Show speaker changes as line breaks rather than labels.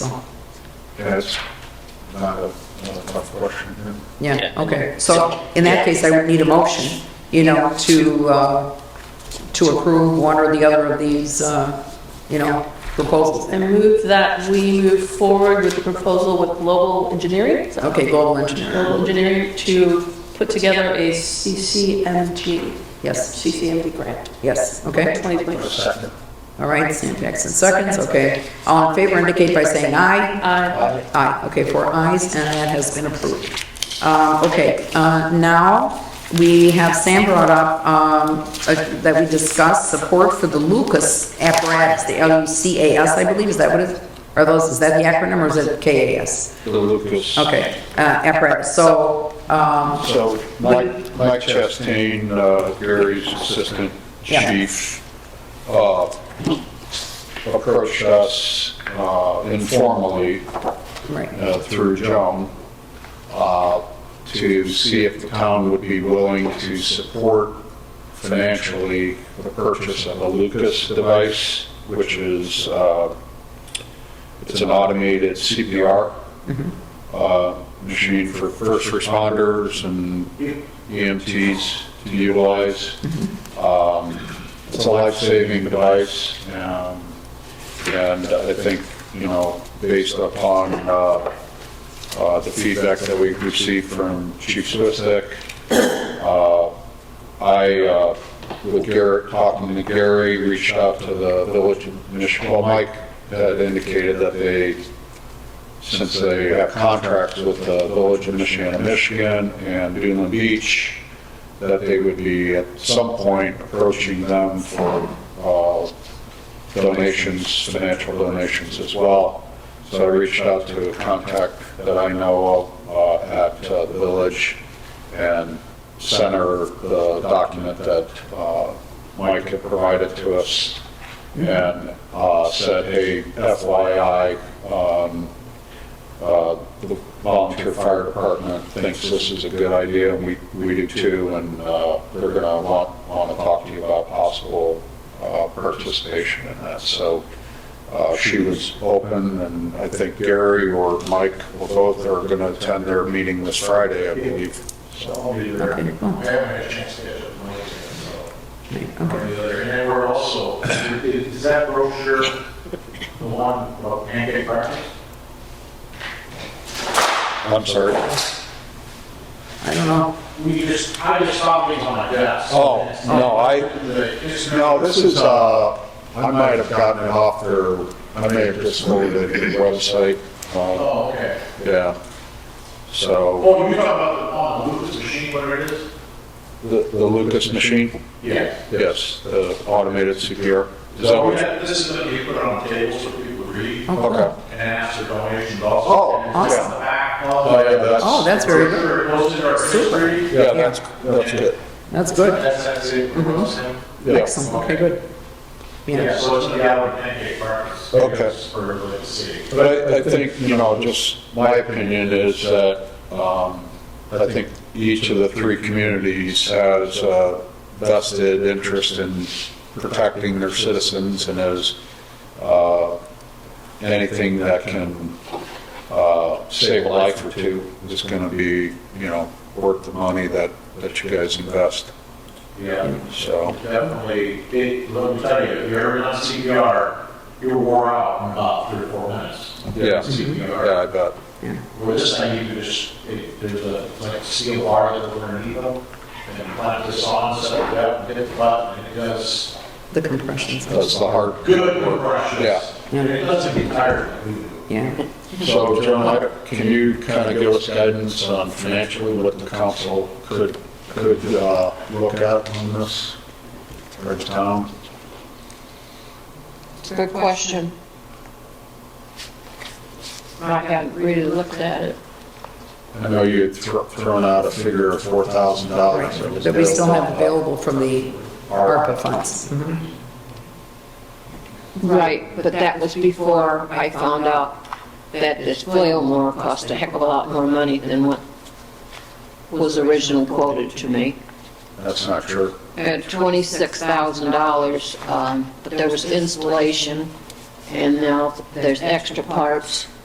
That's not a, not a tough question. yeah.
Yeah,
Yeah.
okay. So in that case, I would need a motion, you know, to, uh, to approve one or the other of these, uh, you know, proposals.
I move that we move forward with the proposal with Global Engineering. Is that
Okay,
right?
global engineering,
Global Engineering to put together a CCMG.
Yes.
CCMG grant.
yes, okay.
2020.
Second.
All right, Sam Jackson seconds, okay. All in favor indicate by saying aye.
Aye.
Aye, okay, four ayes, and that has been approved. Um, Okay, uh, now, we have Sam brought up um, uh, that we discussed support for the Lucas apparatus, the L-U-C-A-S, I believe, is that what it, are those, is that the acronym, or is it K-A-S?
The Lucas.
Okay, uh, apparatus, so, um,
So Mike, Mike Chastain, uh, Gary's assistant
Yeah.
chief, uh, approached us uh, informally
right,
uh, through Joan uh, to see if the town would be willing to support financially the purchase of a Lucas device, which is, uh, it's an automated CPR uh, machine for first responders and EMTs to utilize. Um, It's a life-saving device, um, and I think, you know, based upon uh, uh, the feedback that we received from Chief Swistek, uh, I, uh, with Garrett, talking to Gary, reached out to the village adminis- well Mike had indicated that they, since they have contracts with the village of Michiana, Michigan, and Dune Beach, that they would be at some point approaching them for uh, donations, financial donations as well. So I reached out to a contact that I know of uh, at uh, the village and sent her the document that uh, Mike had provided to us and uh, said, hey, FYI, um, uh, the volunteer fire department thinks this is a good idea, and we, we do too, and uh, they're going to want, want to talk to you about possible uh, participation in that. So uh, she was open, and I think Gary or Mike, well, both are going to attend their meeting this Friday, I believe. So I'll be there.
okay,
I
well,
haven't had a chance to catch up with Mike yet, so.
okay,
Or the other, and then we're also, is that brochure the one about pancake breakfast?
I'm sorry.
I don't know.
We just, I just saw things on my desk.
Oh, no, I,
I,
No, this is, uh, I might have gotten it off their, I may have just loaded it to the website. Uh,
Oh, okay.
Yeah. So,
Oh, you talking about the, oh, the Lucas machine, whatever it is?
the the Lucas machine?
Yeah.
Yes, the automated CPR. Is that
So we
what?
had, this is, what you put it on the table so people would read
Oh.
and
Okay.
ask for donations also.
Oh,
And it's
awesome.
on the back.
Oh, yeah, that's.
Oh, that's very good,
It goes in our history.
Yeah, that's, that's good.
that's good,
That's, that's it.
Yeah.
excellent, Mm-hmm. okay, good.
Yeah,
Yeah,
so it's the Albert Pancake Breakfast.
Okay.
For the city.
But I, I think, you know, just my opinion is that, um, I think each of the three communities has a vested interest in protecting their citizens and is, uh, anything that can, uh, save a life or two is gonna be, you know, worth the money that, that you guys invest,
Yeah,
so.
definitely. It, let me tell you, if you're ever on CPR, you're wore out in about three or four minutes.
Yeah,
CPR.
yeah, I bet.
Where this thing, you could just, it- there's a, like, steel bar that's underneath them, and then plant this on, set it up, hit the button, and it does
the compressions,
That's the hard.
good compressions.
Yeah.
And it doesn't get tired.
yeah.
So, John, can you kind of give us guidance on financially what the council could, could uh, look at on this, or the town?
It's a good question. I haven't really looked at it.
I know you had thro- thrown out a figure of four thousand dollars.
That we still have available from the ARPA funds.
Right, but that was before I found out that this Flowmore cost a heck of a lot more money than what was originally quoted to me,
That's not true.
at $26,000, um, but there was installation and now there's extra parts